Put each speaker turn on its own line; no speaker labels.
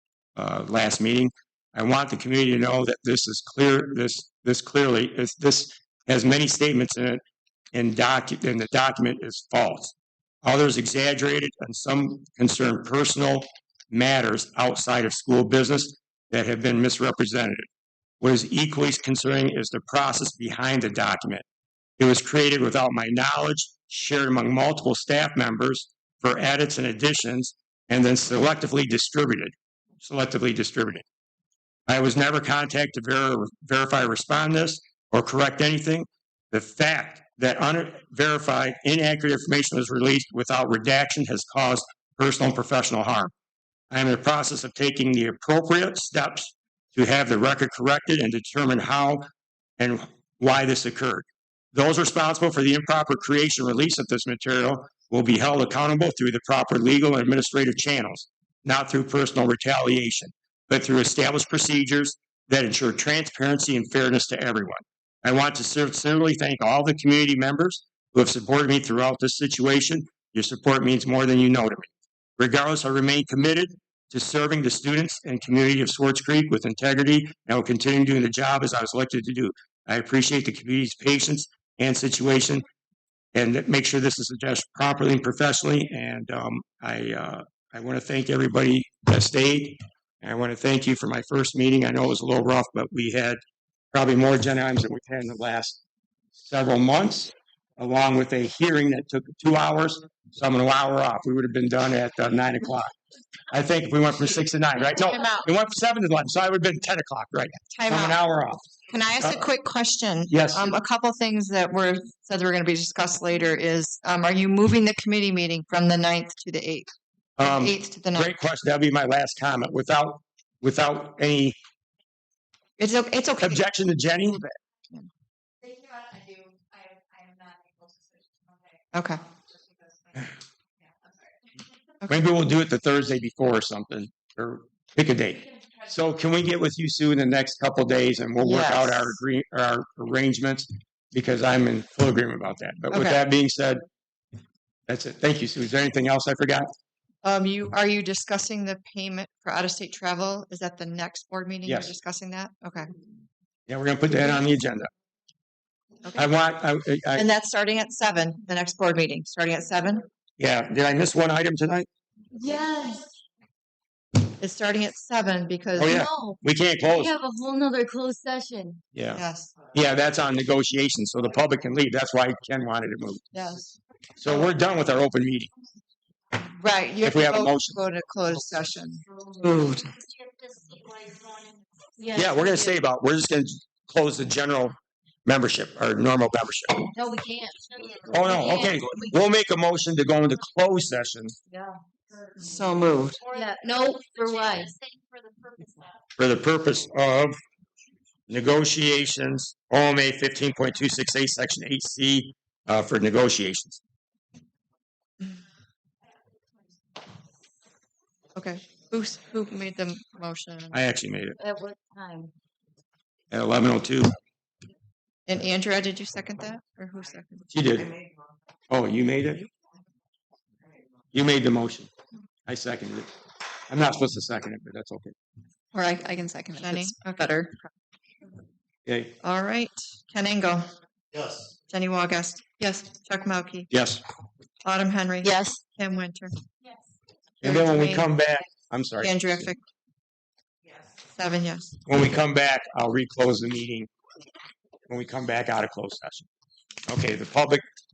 uh, last meeting. I want the community to know that this is clear, this, this clearly, is, this has many statements in it and docu, and the document is false. Others exaggerated and some concern personal matters outside of school business that have been misrepresented. What is equally concerning is the process behind the document. It was created without my knowledge, shared among multiple staff members for edits and additions, and then selectively distributed, selectively distributed. I was never contacted to ver- verify, respond this, or correct anything. The fact that unverified, inaccurate information was released without redaction has caused personal and professional harm. I am in the process of taking the appropriate steps to have the record corrected and determine how and why this occurred. Those responsible for the improper creation and release of this material will be held accountable through the proper legal and administrative channels, not through personal retaliation, but through established procedures that ensure transparency and fairness to everyone. I want to sincerely thank all the community members who have supported me throughout this situation. Your support means more than you know to me. Regardless, I remain committed to serving the students and community of Swartz Creek with integrity and will continue doing the job as I was elected to do. I appreciate the community's patience and situation and that- make sure this is addressed properly and professionally. And um, I, uh, I want to thank everybody that stayed. And I want to thank you for my first meeting. I know it was a little rough, but we had probably more agenda items than we've had in the last several months, along with a hearing that took two hours. So I'm an hour off. We would have been done at uh, nine o'clock. I think if we went from six to nine, right? No,
Time out.
we went from seven to nine, so I would have been ten o'clock, right?
Time
I'm an
out.
hour off.
Can I ask a
Uh,
quick question?
Yes,
Um, a couple things that were said that were going to be discussed later is, um, are you moving the committee meeting from the ninth to the eighth?
um,
Eighth to the ninth?
great question. That'll be my last comment. Without, without any
It's, o- it's okay.
objection to Jenny,
They cannot, I do, I am, I am not able to switch to Monday,
Okay.
just because, my- yeah, I'm sorry.
maybe we'll do it the Thursday before or something, or pick a date. So can we get with you, Sue, in the next couple of days and we'll work out our
Yes.
agree, our arrangements? Because I'm in full agreement about that. But with
Okay.
that being said, that's it. Thank you, Sue. Is there anything else I forgot?
Um, you, are you discussing the payment for out-of-state travel? Is that the next board meeting? You're
Yes.
discussing that? Okay.
Yeah, we're gonna put that on the agenda. I want, I, I,
And that's starting at seven, the next board meeting, starting at seven?
yeah, did I miss one item tonight?
Yes,
It's starting at seven because,
Oh, yeah. Oh.
no,
We can't close.
have a whole nother closed session.
Yeah,
yes,
yeah, that's on negotiations, so the public can leave. That's why Ken wanted it moved.
yes.
So we're done with our open meeting.
Right. you
If we have a
vote
motion.
to Go to closed session. Moved.
Yeah, we're gonna stay about, we're just gonna close the general membership, our normal membership.
No, we can't.
Oh, no, okay. We'll make a motion to go into closed session
So moved.
Yeah, no, for what?
for the purpose of negotiations, OMA fifteen point two six eight, section eight C, uh, for negotiations.
Okay. Who's, who made the motion?
I actually made it
At what time?
at eleven oh two.
And Andrea, did you second that or who seconded?
She did. Oh, you made it? You made the motion. I seconded it. I'm not supposed to second it, but that's okay.
Or I, I can second it.
Jenny?
It's
Okay.
better.
Okay,
All right. Ken Engel,
Yes.
Jenny Wogast. Yes. Chuck Maukey,
yes.
Autumn Henry.
Yes.
Kim Winter,
Yes.
And then when we come back, I'm sorry.
Andrea Fick. Seven, yes.
When we come back, I'll reclose the meeting. When we come back out of closed session. Okay, the public